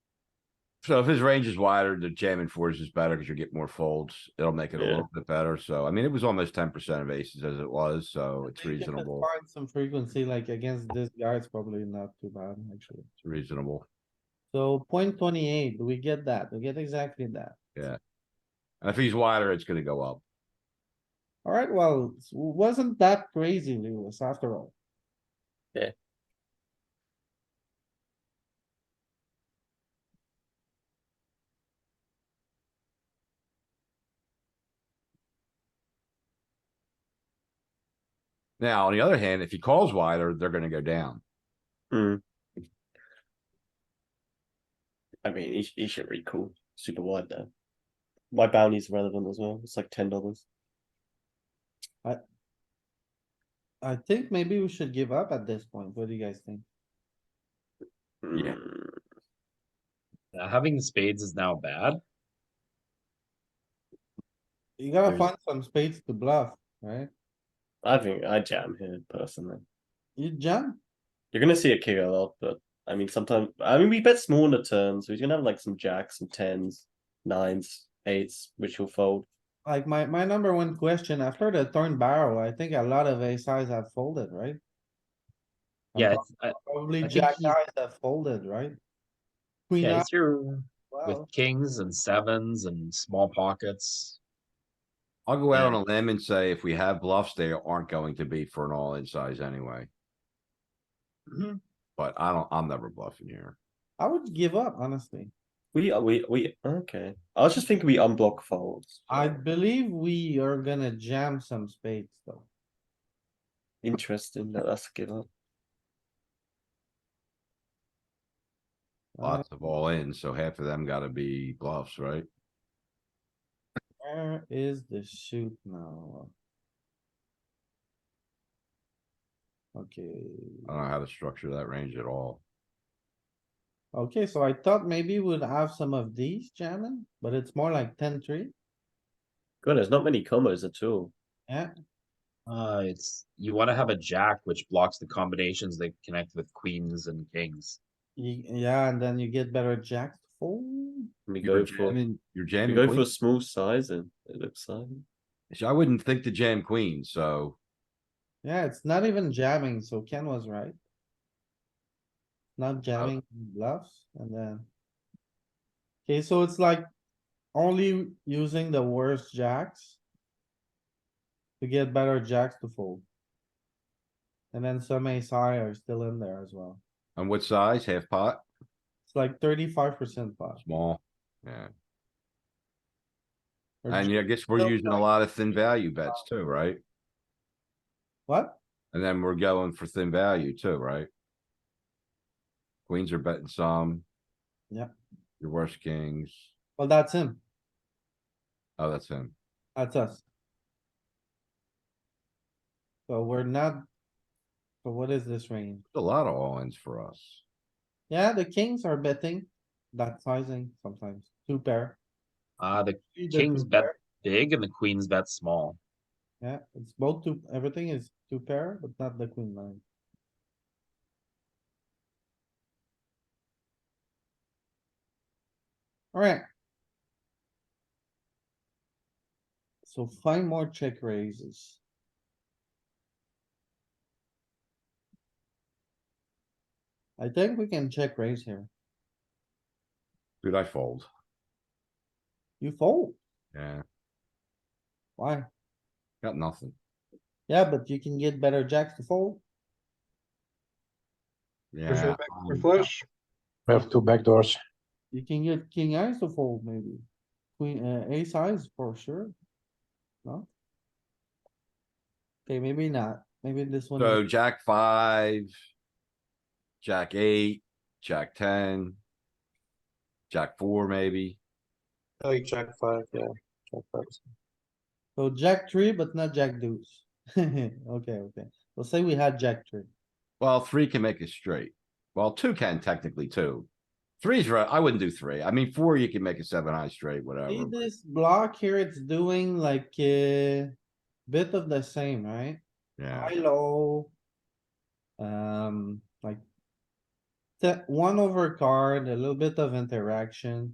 So if his range is wider, the jamming fours is better because you get more folds. It'll make it a Yeah. little bit better. So I mean, it was almost ten percent of aces as it was, so it's Maybe if it reasonable, finds Some frequency, like against this guy, it's probably not too bad, actually. it's reasonable. So point twenty-eight, we get that, we get exactly that. And if he's wider, it's gonna go up. Alright, well, it wasn't that crazy, Lewis, after all. Yeah. Now, on the other hand, if he calls wider, they're gonna go down. Mm. I mean, he, sh- he should read cool. Super wide though. My bounty's relevant as well. It's like ten dollars. I think maybe we should give up at this point. What do you guys think? Yeah. Now, having spades is now bad. You gotta There's- find some spades to bluff, right? I think I jam here personally. You jump, You're gonna see it kick a lot, but I mean, sometimes I mean we bet small on the turn, so he's gonna have like some jacks, some tens, nines, eights, which he'll fold. like my, my number one question, after the turn barrel, I think a lot of ace highs have folded, right? Yeah, Uh-huh. it's, uh, I, I Probably think jack he's- eyes have folded, right? Queen yeah, eye, it's your with well, kings and sevens and small pockets. I'll go out on Yeah. a limb and say if we have bluffs, they aren't going to be for an all-in size anyway. Mhm. But I don't, I'm never bluffing here. I would give up, honestly. We we we okay. I was just thinking we unblock folds. I believe we are gonna jam some spades though. Interesting that that's a give up. Lots of all-in, so half of them gotta be bluffs, right? Where is the shoot now? Okay, I don't know how to structure that range at all. okay, so I thought maybe we'd have some of these jamming, but it's more like ten three. God, there's not many combos at all. Uh, it's you want to have a jack which blocks the combinations that connect with queens and kings. Ye- Yeah, and then you get better jacks to fold. We You're go for jamming, you're we jamming. go for queens. small sizing. It looks like. So I wouldn't think to jam queen, so Yeah, it's not even jamming, so Ken was right. Not jamming bluffs and then. Okay, so it's like only using the worst jacks. To get better jacks to fold. And then some ace high are still in there as well. on what size? Half pot, It's like thirty-five percent pot. small? Yeah, Or and j- yeah, I guess we're so using a like- lot of thin value bets too, right? What? And then we're going for thin value too, right? Queens are betting some. Yep. Your worst kings. Well, that's him. Oh, that's him. That's us. So we're not. So what is this range? A lot of all-ins for us. Yeah, the kings are betting that sizing sometimes, two pair. Uh, the Three to kings two bet pair. big and the queens bet small. Yeah, it's both two, everything is two pair, but not the queen nine. Alright. So find more check raises. I think we can check raise here. Dude, I fold. You fold, Yeah, why? got nothing. Yeah, but you can get better jacks to fold. Yeah. um, We have two back doors. You can get king eyes to fold maybe. Queen, uh, ace eyes for sure. No? Okay, maybe not. Maybe this one. So is- jack five. Jack eight, jack ten. Jack four, maybe. Like Jack five, yeah. Jack five. So jack three, but not jack deuce. Okay, okay. We'll say we had jack three. Well, three can make it straight. Well, two can technically two. Three's right. I wouldn't do three. I mean, four, you can make a seven high straight, See whatever. this block here, it's doing like a bit of the same, right? Yeah, High, low. Um, like. That one over card, a little bit of interaction.